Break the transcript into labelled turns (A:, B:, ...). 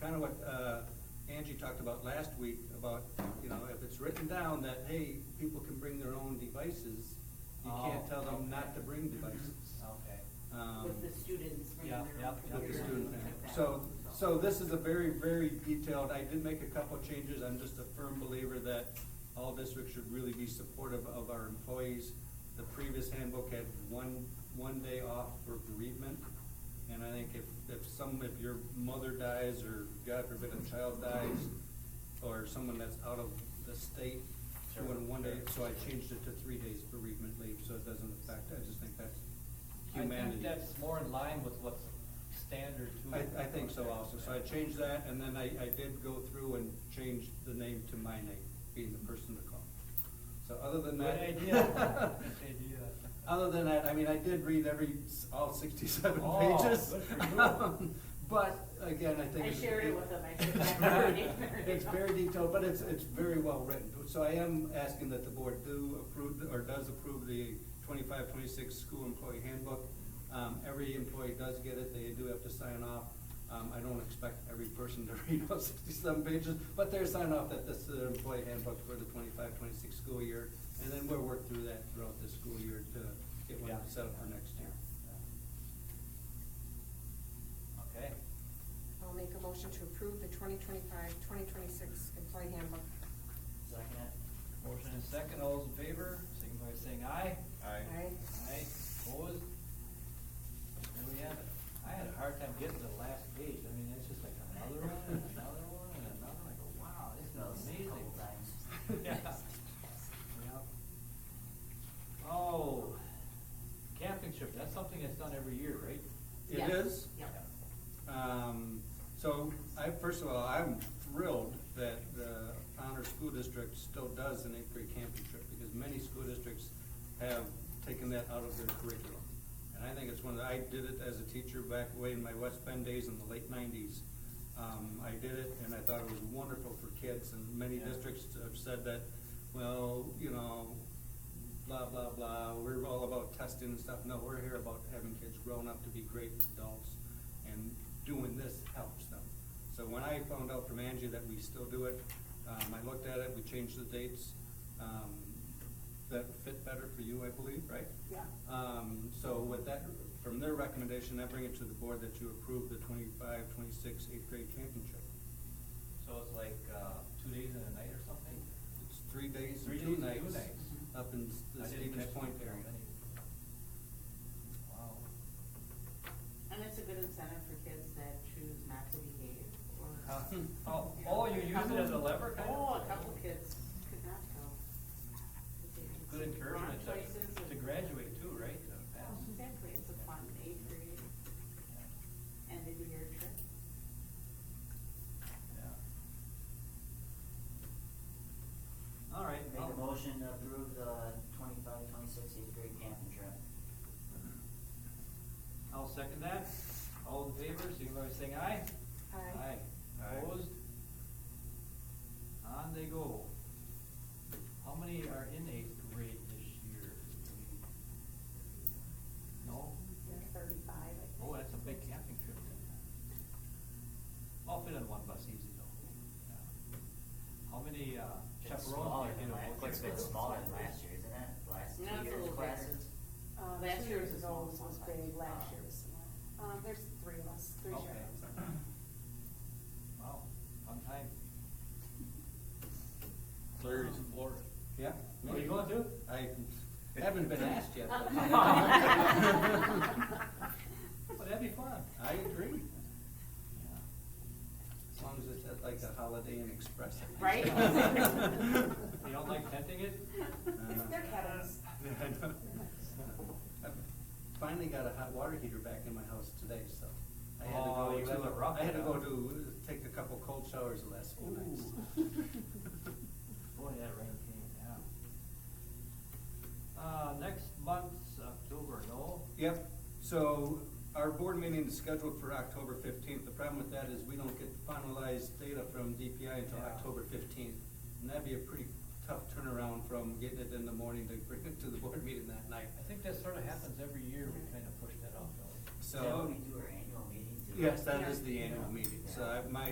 A: kind of what uh, Angie talked about last week, about, you know, if it's written down that, hey, people can bring their own devices, you can't
B: Oh,
A: tell them not
B: okay. Mm-hmm.
A: to bring devices.
B: Okay.
A: Um,
C: With the students bringing
B: Yeah,
C: their
B: yeah,
C: own
A: With
B: yeah.
A: the
C: computers. and
A: student
C: things like
A: thing.
C: that.
A: So, so this is a very, very detailed, I did make a couple changes, I'm just a firm believer that all districts should really be supportive of our employees. The previous handbook had one, one day off for bereavement, and I think if, if some, if your mother dies, or God forbid, a child dies, or someone that's out of the state,
B: Sure,
A: doing one day, so
B: sure.
A: I changed it to three days bereavement leave, so it doesn't affect, I just think that's
B: I
A: humanity.
B: think that's more in line with what's standard too.
A: I, I think so also, so I changed that, and then I, I did go through and change the name to my name, being the person to call. So other than
B: Good
A: that.
B: idea. Good idea.
A: Other than that, I mean, I did read every, s- all sixty-seven
B: Oh,
A: pages. Um,
B: good for you.
A: But, again, I think.
C: I
A: it's-
C: shared it with them. I said,
A: it's
C: "I'm already
A: very-
C: there."
A: It's very detailed, but it's, it's very well written, so I am asking that the board do approve, the- or does approve the 25-26 school employee handbook. Um, every employee does get it, they do have to sign off. Um, I don't expect every person to read all sixty-seven pages, but they're signing off that this is their employee handbook for the 25-26 school year. And then we'll work through that throughout the school year to get one
B: Yeah.
A: set up for next year.
B: Okay,
D: I'll make a motion to approve the 2025-2026 employee handbook.
E: Second it.
B: motion and second, all those in favor, signify by saying aye.
D: Aye.
B: Aye, opposed? There we have it. I had a hard time getting to the last page, I mean, it's just like another one, and another one, and another, like, wow, this is amazing.
E: Couple times.
B: Yeah. Yep. Oh, camping trip, that's something that's done every year, right?
A: It
C: Yeah.
A: is?
C: Yeah.
A: Um, so I, first of all, I'm thrilled that the Honor School District still does an eighth grade camping trip because many school districts have taken that out of their curriculum. And I think it's one that, I did it as a teacher back way in my West Bend days in the late nineties. Um, I did it and I thought it was wonderful for kids and many
B: Yeah.
A: districts have said that, well, you know, blah, blah, blah, we're all about testing and stuff, no, we're here about having kids grown up to be great adults, and doing this helps them. So when I found out from Angie that we still do it, um, I looked at it, we changed the dates, um, that fit better for you, I believe, right?
C: Yeah.
A: Um, so with that, from their recommendation, I bring it to the board that you approve the 25, 26, eighth grade camping trip.
B: So it's like, uh, two days and a night or something?
A: It's three days
B: Three
A: and two
B: days and
A: nights.
B: two nights.
A: Up in
B: I
A: the
B: didn't
A: Stevens
B: catch
A: Point
B: that.
A: area.
B: Wow.
C: And it's a good incentive for kids that choose not to behave or.
B: Huh.
A: Hmm.
B: Oh,
C: you know,
B: oh, you use it as a lever kind of?
C: Oh, a couple kids could not go. 'Cause they made
B: Good
C: some
B: encouragement
C: wrong choices
B: to, to
C: and-
B: graduate too, right? To pass.
C: Oh, Exactly, it's a fun eighth grade, end of the year trip.
B: Yeah. All right.
E: Make
B: I'll-
E: a motion to approve the twenty-five, twenty-six eighth grade camping trip.
B: I'll second that. All in favor, signify by saying aye.
D: Aye.
B: Aye. Opposed? On they go. How many are in eighth grade this year? No?
C: Thirty-five, I think.
B: Oh, that's a big camping trip then. I'll fit on one bus easy though. Yeah. How many uh,
E: It's
B: chaperones
E: smaller
B: did you
E: than
B: know?
E: last, it's a bit smaller than last year, isn't it? Last
C: No,
E: two
C: it's a
E: years
C: little
E: classes.
F: Uh,
C: Last
F: two
C: year was
F: years
C: the
F: ago
C: smallest
F: was
C: one.
F: big, last
E: Ah.
F: year was small. Um, there's three of us, three
B: Okay.
F: chaperones.
B: Wow, fun time.
G: Larry's
B: Um,
G: Florida.
A: Yeah?
B: Where are you going to?
A: I haven't been asked yet. but-
B: Well, that'd be fun.
A: I agree.
B: Yeah.
A: As long as it's at like a Holiday Inn Express.
C: Right?
B: You don't like tenting it?
F: It's
B: Uh,
F: their cabins.
A: I know. I've Finally got a hot water heater back in my house today, so. I had to
B: Oh,
A: go
B: you
A: to-
B: have a rough
A: I had to go
B: house.
A: to, take a couple cold showers the last few nights.
B: Ooh. Boy, that rain came down. Uh, next month's October, no?
A: Yep, so our board meeting is scheduled for October fifteenth. The problem with that is we don't get finalized data from DPI until
B: Yeah.
A: October fifteenth. And that'd be a pretty tough turnaround from getting it in the morning to bring it to the board meeting that night.
B: I think that sort of happens every year, we kind of push that off, though.
E: Is that
A: So,
E: when we do our annual meeting? too?
A: yes, that is the annual meeting. So I- my,